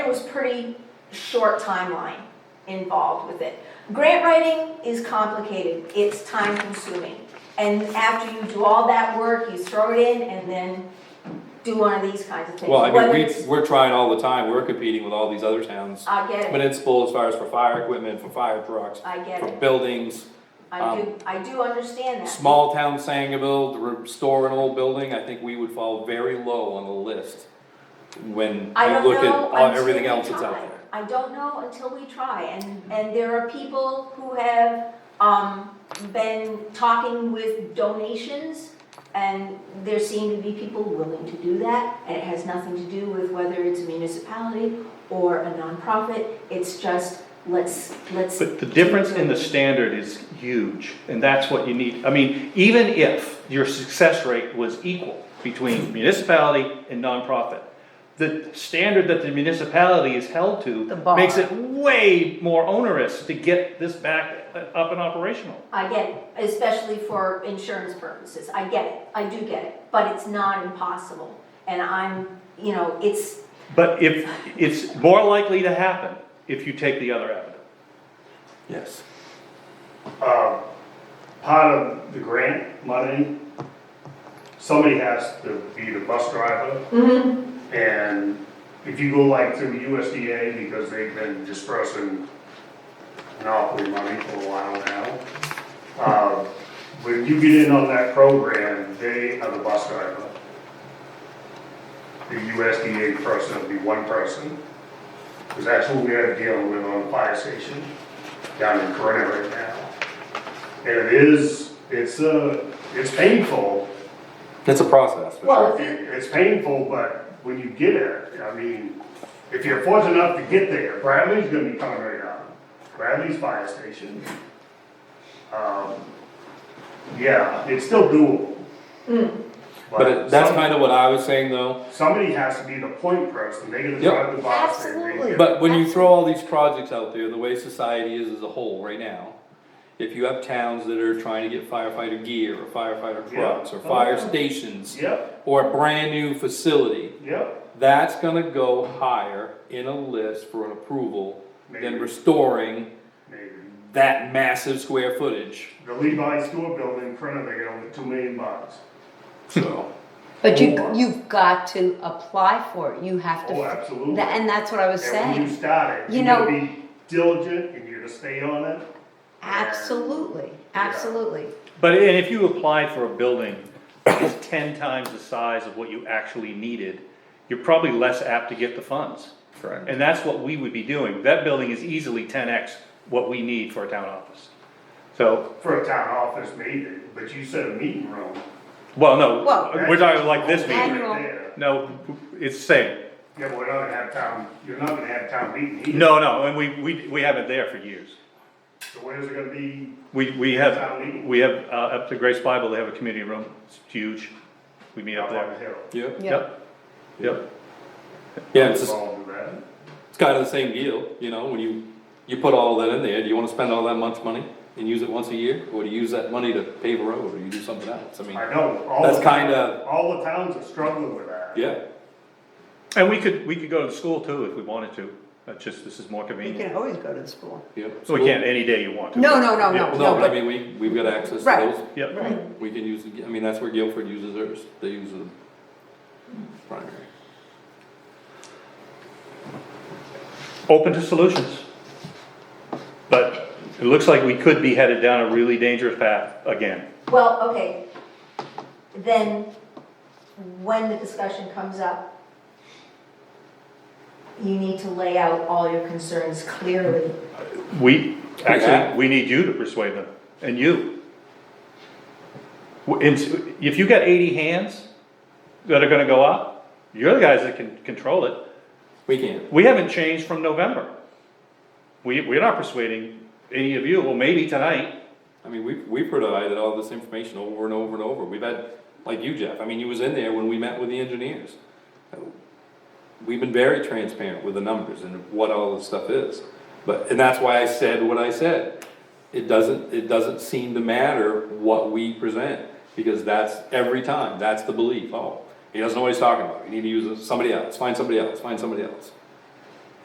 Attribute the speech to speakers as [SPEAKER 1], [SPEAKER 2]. [SPEAKER 1] was pretty short timeline involved with it. Grant writing is complicated, it's time consuming. And after you do all that work, you throw it in and then do one of these kinds of things.
[SPEAKER 2] Well, I mean,
[SPEAKER 1] Whether
[SPEAKER 2] we,
[SPEAKER 1] it's-
[SPEAKER 2] we're trying all the time, we're competing with all these other towns,
[SPEAKER 1] I get it,
[SPEAKER 2] municipal as far as for fire equipment, for fire trucks,
[SPEAKER 1] I get
[SPEAKER 2] for
[SPEAKER 1] it,
[SPEAKER 2] buildings.
[SPEAKER 1] I do, I do understand that.
[SPEAKER 2] Small town Sangerville, to restore an old building, I think we would fall very low on the list when
[SPEAKER 1] I
[SPEAKER 2] you
[SPEAKER 1] don't
[SPEAKER 2] look at
[SPEAKER 1] know
[SPEAKER 2] all-
[SPEAKER 1] until
[SPEAKER 2] everything
[SPEAKER 1] we
[SPEAKER 2] else that's out
[SPEAKER 1] try.
[SPEAKER 2] there.
[SPEAKER 1] I don't know until we try, and, and there are people who have, um, been talking with donations, and there seem to be people willing to do that, and it has nothing to do with whether it's a municipality or a nonprofit, it's just, let's, let's.
[SPEAKER 3] But the difference in the standard is huge, and that's what you need, I mean, even if your success rate was equal between municipality and nonprofit, the standard that the municipality is held to
[SPEAKER 4] The bar.
[SPEAKER 3] makes it way more onerous to get this back up and operational.
[SPEAKER 1] I get it, especially for insurance purposes, I get it, I do get it, but it's not impossible, and I'm, you know, it's,
[SPEAKER 3] But if, it's more likely to happen if you take the other avenue.
[SPEAKER 2] Yes.
[SPEAKER 5] uh, part of the grant money, somebody has to be the bus driver. And if you go like through USDA, because they've been dispersing monopoly money for a while now, uh, when you get in on that program, they are the bus driver. The USDA person will be one person, because that's who we are dealing with on the fire station down in Corona right now. And it is, it's uh it's painful,
[SPEAKER 2] It's a process. for
[SPEAKER 1] Well,
[SPEAKER 2] sure.
[SPEAKER 5] It- it's painful, but when you get it, I mean, if you're fortunate enough to get there, Bradley's gonna be coming right out. Bradley's fire station. Um, yeah, it's still doable.
[SPEAKER 2] But it- that's
[SPEAKER 5] some-
[SPEAKER 2] kind of what I was saying though,
[SPEAKER 5] Somebody has to be the point person, they gotta
[SPEAKER 2] Yep.
[SPEAKER 5] drive the bus. they- they-
[SPEAKER 4] Absolutely.
[SPEAKER 2] but when you throw all these projects out there, the way society is as a whole right now, if you have towns that are trying to get firefighter gear or firefighter
[SPEAKER 5] Yeah.
[SPEAKER 2] trucks or fire stations
[SPEAKER 5] Yep,
[SPEAKER 2] or a brand new facility,
[SPEAKER 5] yep,
[SPEAKER 2] that's gonna go higher in a list for an approval
[SPEAKER 5] Maybe.
[SPEAKER 2] than restoring
[SPEAKER 5] maybe.
[SPEAKER 2] that massive square footage,
[SPEAKER 5] The Levi store building, Corona, they got over two million bucks.
[SPEAKER 2] so.
[SPEAKER 4] But you,
[SPEAKER 5] Or-
[SPEAKER 4] you've got to apply for it, you have to.
[SPEAKER 5] Oh, absolutely.
[SPEAKER 4] Tha- And that's what I was
[SPEAKER 5] And when you
[SPEAKER 4] saying,
[SPEAKER 5] start it,
[SPEAKER 4] You
[SPEAKER 5] you're
[SPEAKER 4] know-
[SPEAKER 5] gonna be diligent and you're gonna stay on it.
[SPEAKER 4] absolutely, absolutely.
[SPEAKER 3] But, and if you applied for a building that's ten times the size of what you actually needed, you're probably less apt to get the funds.
[SPEAKER 2] Correct.
[SPEAKER 3] And that's what we would be doing, that building is easily ten X what we need for a town office. So,
[SPEAKER 5] For a town office maybe, but you said a meeting room.
[SPEAKER 3] well, no,
[SPEAKER 4] Well-
[SPEAKER 3] we're talking like this meeting,
[SPEAKER 4] Annual.
[SPEAKER 5] There.
[SPEAKER 3] no, it's the same,
[SPEAKER 5] Yeah, but we're not gonna have town, you're not gonna have town meeting either.
[SPEAKER 3] no, no, and we, we, we have it there for years.
[SPEAKER 5] So where's it gonna be?
[SPEAKER 3] We, we have, we have, uh, up to Grace Bible, they have a community room, it's huge, we meet up
[SPEAKER 5] Up on the
[SPEAKER 3] there.
[SPEAKER 5] hill.
[SPEAKER 2] Yeah,
[SPEAKER 3] Yep, yep.
[SPEAKER 2] yeah, it's, just-
[SPEAKER 5] Involved with that.
[SPEAKER 2] it's kind of the same deal, you know, when you, you put all that in there, do you wanna spend all that much money and use it once a year? Or do you use that money to pave a road, or you do something else, I mean,
[SPEAKER 5] I know, all.
[SPEAKER 2] That's
[SPEAKER 5] the-
[SPEAKER 2] kinda-
[SPEAKER 5] All the towns are struggling with that.
[SPEAKER 2] yeah,
[SPEAKER 3] And we could, we could go to the school too if we wanted to, that's just, this is more
[SPEAKER 4] You
[SPEAKER 3] convenient.
[SPEAKER 4] can always go to the school.
[SPEAKER 2] yeah.
[SPEAKER 3] So we can, any day you want to.
[SPEAKER 4] No, no,
[SPEAKER 3] Yeah,
[SPEAKER 4] no, no,
[SPEAKER 2] Well,
[SPEAKER 4] no,
[SPEAKER 2] No, but I
[SPEAKER 4] but,
[SPEAKER 2] mean, we, we've got access to
[SPEAKER 4] Right.
[SPEAKER 2] those,
[SPEAKER 3] Yep,
[SPEAKER 4] right,
[SPEAKER 2] we can use, the- I mean, that's where Guilford uses theirs, they use the primary.
[SPEAKER 3] open to solutions. But it looks like we could be headed down a really dangerous path again.
[SPEAKER 1] Well, okay, then when the discussion comes up, you need to lay out all your concerns clearly.
[SPEAKER 3] We,
[SPEAKER 2] Yeah.
[SPEAKER 3] actually, we need you to persuade them, and you. W- and If you got eighty hands that are gonna go up, you're the guys that can control it.
[SPEAKER 2] We can,
[SPEAKER 3] We haven't changed from November. We, we're not persuading any of you, well, maybe tonight,
[SPEAKER 2] I mean, we, we provided all this information over and over and over, we've had, like you Jeff, I mean, you was in there when we met with the engineers. We've been very transparent with the numbers and what all this stuff is, but, and that's why I said what I said. It doesn't, it doesn't seem to matter what we present, because that's every time, that's the belief, oh, he doesn't know what he's talking about, you need to use somebody else, find somebody else, find somebody else.